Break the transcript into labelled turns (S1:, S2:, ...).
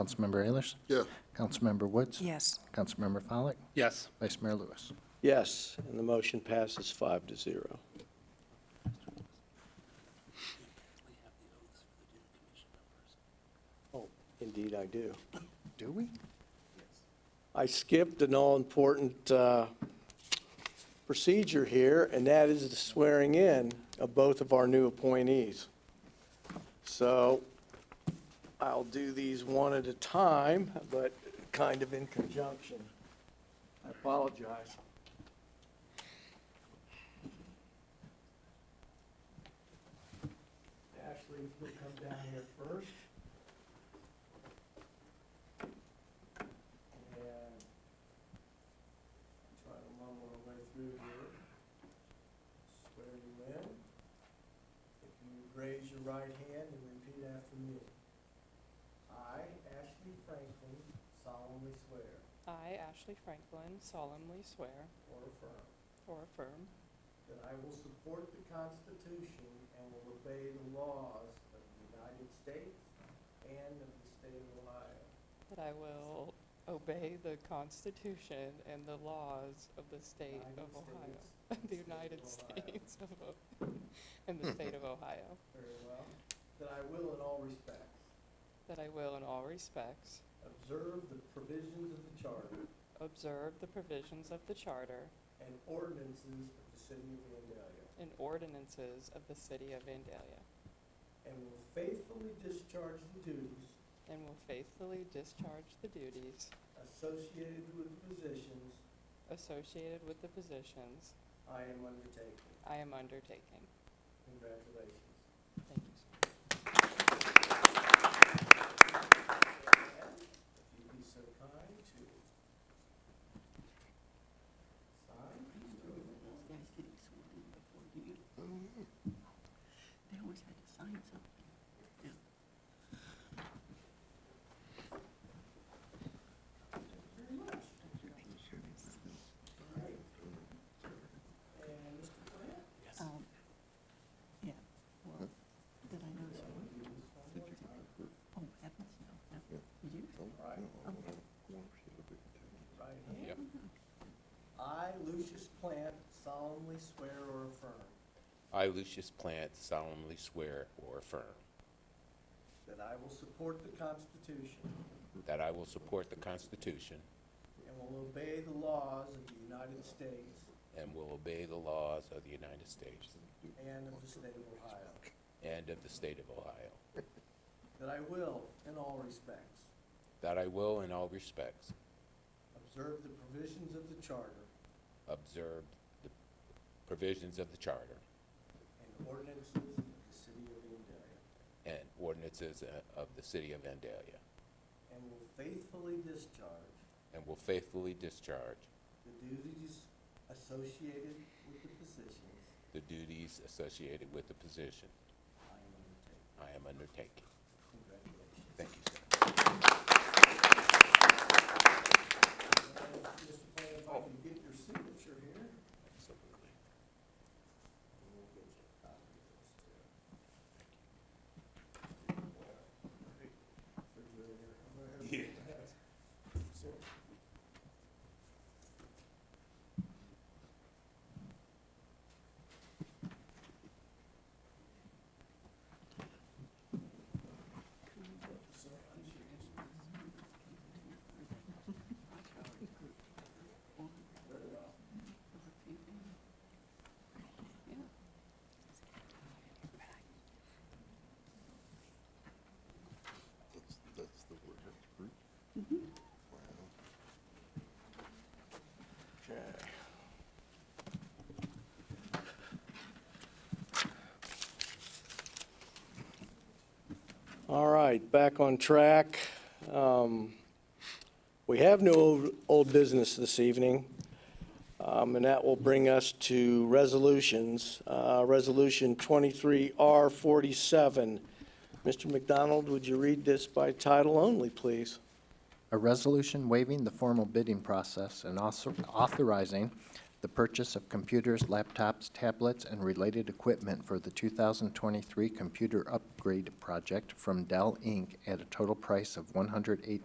S1: Councilmember Ayers?
S2: Yes.
S1: Councilmember Woods?
S3: Yes.
S1: Councilmember Follak?
S4: Yes.
S1: Vice Mayor Lewis?
S5: Yes, and the motion passes five to zero. Oh, Indeed, I do.
S1: Do we?
S5: I skipped an all-important uh, procedure here, and that is the swearing in of both of our new appointees. So I'll do these one at a time, but kind of in conjunction. I apologize. Ashley, if you'll come down here first. And uh, try to mumble our way through here. Swear you in. If you raise your right hand and repeat after me. I, Ashley Franklin, solemnly swear
S6: I, Ashley Franklin, solemnly swear
S5: or affirm
S6: or affirm
S5: that I will support the Constitution and will obey the laws of the United States and of the state of Ohio.
S6: that I will obey the Constitution and the laws of the state of
S5: United
S6: Ohio,
S5: States,
S6: the United
S5: State of Ohio.
S6: States of, O- and the state of Ohio,
S5: Very well. That I will in all respects
S6: that I will in all respects
S5: observe the provisions of the Charter
S6: observe the provisions of the Charter
S5: and ordinances of the city of Vandalia,
S6: and ordinances of the city of Vandalia,
S5: and will faithfully discharge the duties
S6: and will faithfully discharge the duties
S5: associated with the positions
S6: associated with the positions
S5: I am undertaking.
S6: I am undertaking.
S5: Congratulations.
S6: Thank you. sir.
S5: If you'd be so kind to sign.
S3: They always had to sign something.
S5: And Mr. Plant,
S3: Um, Yeah, well, did I know so? Oh, heavens, no, no. Did you?
S5: right hand. I, Lucius Plant, solemnly swear or affirm
S4: I, Lucius Plant, solemnly swear or affirm
S5: that I will support the Constitution
S4: that I will support the Constitution
S5: and will obey the laws of the United States
S4: and will obey the laws of the United States
S5: and of the state of Ohio.
S4: and of the state of Ohio,
S5: That I will, in all respects,
S4: that I will in all respects
S5: observe the provisions of the Charter
S4: observe the provisions of the Charter
S5: and ordinances of the city of Vandalia,
S4: and ordinances uh, of the city of Vandalia,
S5: and will faithfully discharge
S4: and will faithfully discharge
S5: the duties associated with the positions
S4: the duties associated with the position I
S5: I am undertaking.
S4: am undertaking.
S5: Congratulations.
S4: Thank you, sir.
S5: And Mr. Plan, if I can get your signature here.
S4: Absolutely.
S5: and we'll get you a copy of this, too. Refrigerator. I'm gonna have to- All right, back on track. Um, We have no old- old business this evening, um, and that will bring us to resolutions. Uh, Resolution 23R47. Mr. McDonald, would you read this by title only, please?
S1: A resolution waiving the formal bidding process and also authorizing the purchase of computers, laptops, tablets, and related equipment for the 2023 Computer Upgrade Project from Dell, Inc. at a total price of one hundred eight.